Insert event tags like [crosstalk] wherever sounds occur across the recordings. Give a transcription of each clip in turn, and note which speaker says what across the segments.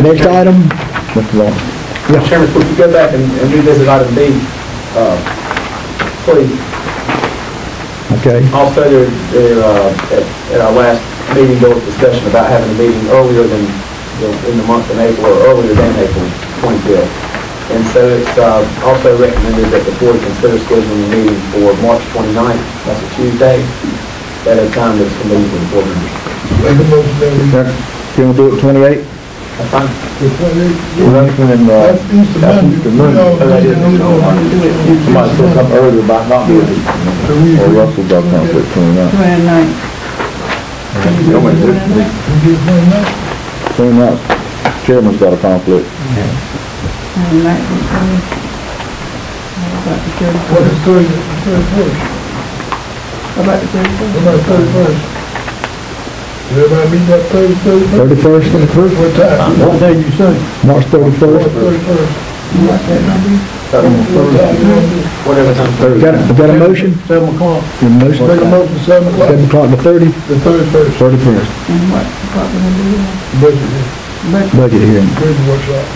Speaker 1: Next item? Mr. Long. Yeah.
Speaker 2: Chairman, if we go back and and revisit item B, uh, please,
Speaker 1: Okay,
Speaker 2: also there, there, uh, at at our last meeting, there was discussion about having a meeting earlier than, the- in the month of April, or earlier than April 25th. And so it's uh, also recommended that the board consider scheduling a meeting for March 29th, that's a Tuesday, at a time that's convenient for the board members.
Speaker 3: Make a motion that we,
Speaker 1: Yeah. you wanna do it twenty-eight?
Speaker 2: That's fine.
Speaker 3: the twenty-eighth,
Speaker 1: That's when, uh,
Speaker 3: that's Easter Monday.
Speaker 1: Easter
Speaker 3: We
Speaker 1: Monday.
Speaker 3: all need to know.
Speaker 1: somebody said something earlier about not doing it.
Speaker 3: So we
Speaker 1: Or
Speaker 3: agree.
Speaker 1: Russell doesn't want to do it twenty-nine.
Speaker 4: Twenty-nine.
Speaker 3: We get twenty-nine,
Speaker 1: Twenty-nine, chairman's got a conflict.
Speaker 3: what is thirty, thirty-first,
Speaker 4: About the thirty-first?
Speaker 3: what about thirty-first? Everybody meet that thirty, thirty-first,
Speaker 1: Thirty-first and the first,
Speaker 3: what time?
Speaker 1: What
Speaker 3: day you say?
Speaker 1: March thirty-first.
Speaker 3: Thirty-first.
Speaker 2: So,
Speaker 3: What time you want to do?
Speaker 2: Whatever time.
Speaker 1: Got, a- got a motion?
Speaker 3: Seven o'clock.
Speaker 1: Your motion?
Speaker 3: Make a motion, seven
Speaker 1: Seven
Speaker 3: o'clock,
Speaker 1: o'clock to thirty,
Speaker 3: the thirty-first,
Speaker 1: thirty-first,
Speaker 4: And what, what we're gonna do then?
Speaker 3: budget,
Speaker 4: But,
Speaker 1: budget hearing.
Speaker 3: budget workshop.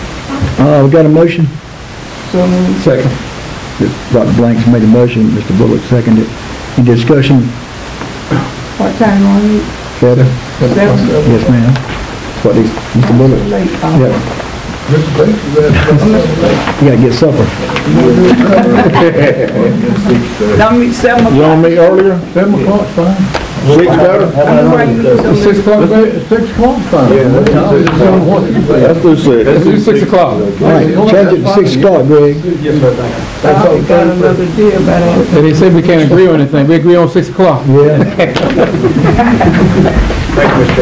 Speaker 1: Uh, we got a motion?
Speaker 4: so, moved.
Speaker 1: Second. Dr. Blanks made a motion, Mr. Bullock seconded. Any discussion,
Speaker 4: what time on it?
Speaker 1: Heather?
Speaker 4: Seven?
Speaker 1: Yes, ma'am. What is, Mr. Bullock?
Speaker 4: Late.
Speaker 1: Yeah,
Speaker 3: Mr. Banks,
Speaker 1: [laughs]
Speaker 3: that's.
Speaker 1: you gotta get supper.
Speaker 4: Don't meet seven o'clock.
Speaker 1: meet earlier?
Speaker 3: Seven o'clock's fine.
Speaker 1: Six better?
Speaker 4: I know why you look so late.
Speaker 3: o'clock, six o'clock's fine.
Speaker 2: Yeah, that's fine.
Speaker 1: Let's do six.
Speaker 5: Let's do six o'clock.
Speaker 1: All right, change it to six o'clock, Greg.
Speaker 2: Yes, sir, thank you.
Speaker 4: I already got another deal by that.
Speaker 5: And they said we can't agree on anything, we agree on six o'clock.
Speaker 1: [laughs] Yeah.
Speaker 2: Thank you, Mr.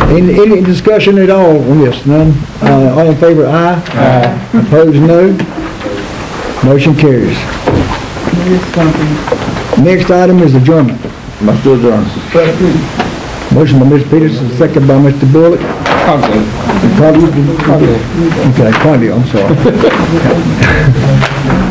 Speaker 2: Chairman.
Speaker 1: Any, any discussion at all on this? None? Uh, all in favor, aye? Aye. Opposed, no? Motion carries.
Speaker 4: It's something.
Speaker 1: Next item is adjournment. Must adjourn. Motion by Mr. Peterson, second by Mr. Bullock.
Speaker 5: Conklin.
Speaker 1: Probably- Okay, Condi, I'm sorry.